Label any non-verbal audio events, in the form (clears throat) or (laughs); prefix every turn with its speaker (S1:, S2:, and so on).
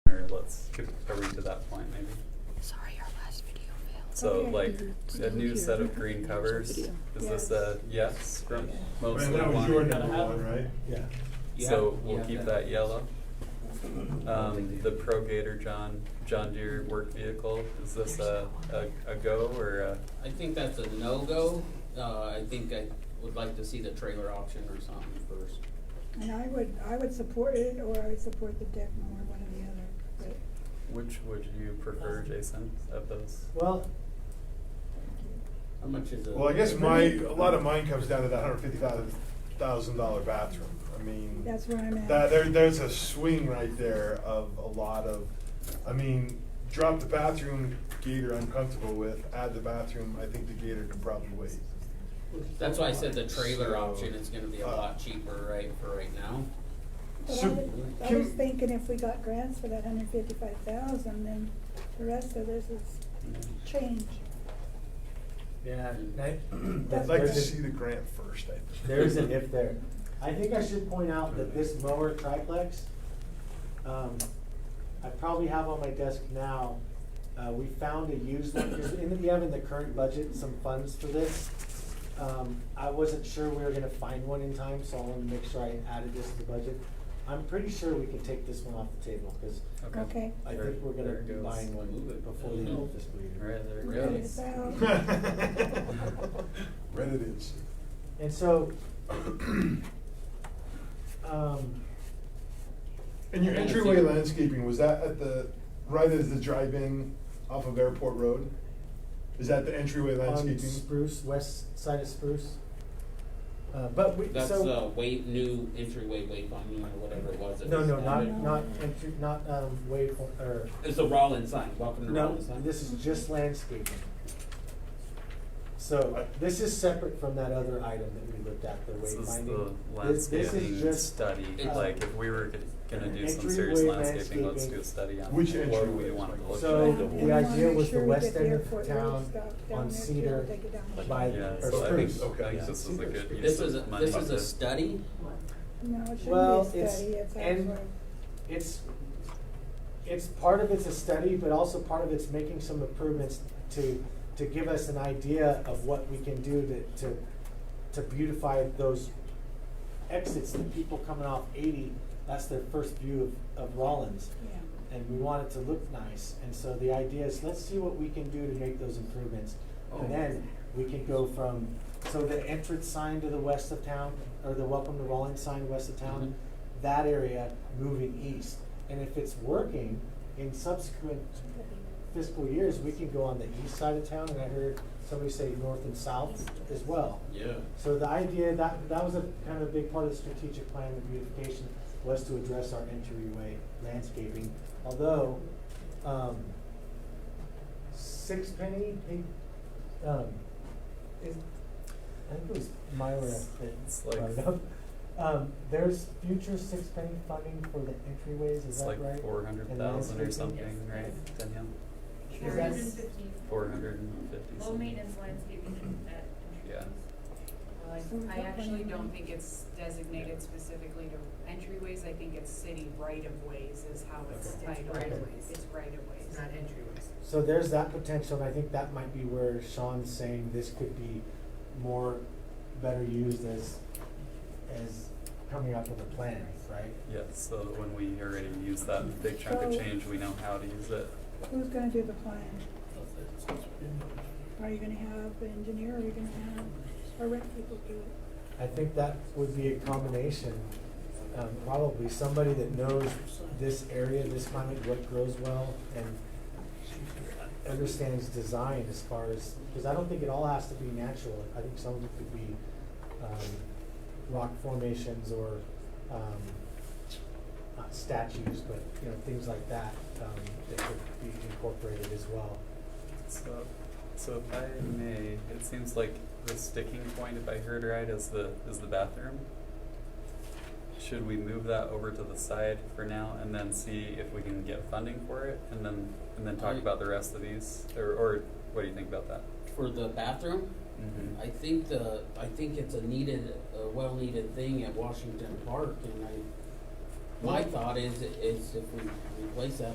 S1: let's get a read to that point maybe.
S2: Sorry, our last video failed.
S1: So
S3: Okay.
S1: like a
S2: Still
S1: new
S2: here.
S1: set of green covers, is this a yes from mostly
S4: And that was
S1: wine?
S4: your number one, right?
S5: Yeah.
S1: So we'll keep that yellow. Um, the Pro Gator John, John Deere work vehicle, is this a, a, a go or a?
S6: I think that's a no-go. Uh, I think I would like to see the trailer option or something first.
S3: And I would, I would support it, or I would support the deck more, one or the other,
S1: Which would you prefer, Jason, of those?
S5: Well,
S6: How much is it?
S4: Well, I guess my, a lot of mine comes down to that hundred fifty thousand, thousand dollar bathroom. I mean.
S3: but that's where I'm at.
S4: That, there, there's a swing right there of a lot of, I mean, drop the bathroom gator I'm comfortable with, add the bathroom, I think the gator can probably wait.
S6: That's why I said the trailer
S4: So,
S6: option is gonna be a
S4: uh,
S6: lot cheaper, right, for right now.
S3: But I
S4: So,
S3: was, I
S4: can-
S3: was
S4: (clears throat)
S3: thinking if we got grants for that hundred fifty-five thousand, then the rest of this is change.
S5: yeah, I-
S4: I'd
S5: that's-
S4: like to
S5: there's a-
S4: see the grant first, I think.
S5: There's an if there. I think I should point out that this mower triplex, um, I probably have on my desk now. Uh, we found a used one, because in the, we have in the current budget some funds for this. Um, I wasn't sure we were gonna find one in time, so I wanted to make sure I added this to the budget. I'm pretty sure we can take this one off the table, because
S3: Okay.
S5: I
S1: There-
S5: think we're
S1: there
S5: gonna
S1: it
S5: be
S1: goes.
S5: buying one
S6: Move it.
S5: before the end of this
S1: All
S5: year.
S1: right, there
S3: We're
S1: it
S3: good.
S1: goes.
S4: (laughs) Read it is.
S5: And so, (coughs) um,
S4: And your entryway landscaping, was that at the, right as the drive-in off of Airport Road? Is that the entryway
S5: on
S4: landscaping?
S5: Spruce, west side of Spruce. Uh, but we,
S6: That's
S5: so,
S6: a wave, new entryway wayfinding or whatever it was. that
S5: no,
S6: was
S5: no, not,
S6: added.
S5: not, entry- not, um, waypoint, or,
S6: It's a Rollins sign, welcome to
S5: no,
S6: Rollins sign.
S5: this is just landscaping. So, uh, this is separate from that other item that we looked at, the
S1: This is the
S5: wayfinding. This- This is
S1: landscaping
S5: just,
S1: study,
S6: uh,
S1: like if we were g- gonna do some serious
S5: entryway
S1: landscaping, let's
S5: landscaping.
S1: do a study on
S4: Which
S1: what
S4: entryway
S1: we
S4: is
S1: wanted
S4: like-
S1: to look at.
S5: So,
S3: And we
S5: the
S3: wanna
S5: idea
S3: make
S5: was
S3: sure
S5: the
S3: we get
S5: west end of
S3: airport
S5: town
S3: road stuff down
S5: on
S3: there too,
S5: Cedar
S3: take it down.
S5: by-
S1: Yeah,
S5: or
S1: so I think,
S5: spruce.
S1: I think this is a good
S5: This
S1: use
S6: This is,
S1: of
S6: a-
S1: money.
S6: this is a
S1: to-
S6: study?
S3: No, it
S5: Well,
S3: shouldn't be a
S5: it's-
S3: study, it's
S5: and-
S3: actually,
S5: it's, it's, part of it's a study, but also part of it's making some improvements to, to give us an idea of what we can do to, to, to beautify those exits, the people coming off eighty, that's their first view of, of Rollins.
S3: yeah.
S5: And we want it to look nice, and so the idea is, let's see what we can do to make those improvements.
S1: Oh.
S5: And then we can go from, so the entrance sign to the west of town, or the welcome to Rollins sign west of town, that area moving east. And if it's working in subsequent fiscal years, we can go on the east side of town, and I heard somebody say north and south as well.
S6: Yeah.
S5: So the idea, that, that was a kind of a big part of the strategic plan of beautification, was to address our entryway landscaping. Although, um, Sixpenny, he, um, is, I think it was Myra
S1: It's
S5: that
S1: like-
S5: brought it up. Um, there's future Sixpenny funding for the entryways, is
S1: It's
S5: that right?
S1: like four hundred thousand or
S5: And landscaping?
S1: something, right, Danielle?
S5: Is that-
S1: Four hundred and fifty
S7: Low
S1: something.
S7: maintenance landscaping and that.
S1: Yeah.
S3: I-
S7: I actually don't think it's designated specifically to entryways, I think it's city right of ways is how it's
S8: It's
S7: titled.
S8: right-of-ways.
S7: It's right of ways.
S8: It's not entryways.
S5: So there's that potential, and I think that might be where Sean's saying this could be more, better used as, as coming up with a plan, right?
S1: Yeah, so that when we already use that big chunk of
S3: So-
S1: change, we know how to use it.
S3: Who's gonna do the plan? Are you gonna have an engineer, or are you gonna have our rent people do it?
S5: I think that would be a combination, um, probably somebody that knows this area, this climate, what grows well, and understands design as far as, because I don't think it all has to be natural, I think some of it could be, um, rock formations or, um, not statues, but, you know, things like that, um, that could be incorporated as well.
S1: So, so if I may, it seems like the sticking point, if I heard right, is the, is the bathroom. Should we move that over to the side for now and then see if we can get funding for it and then, and then talk
S6: I-
S1: about the rest of these? Or, or what do you think about that?
S6: For the bathroom?
S1: Mm-hmm.
S6: I think the, I think it's a needed, a well-needed thing at Washington Park, and I, my thought is, is if we replace that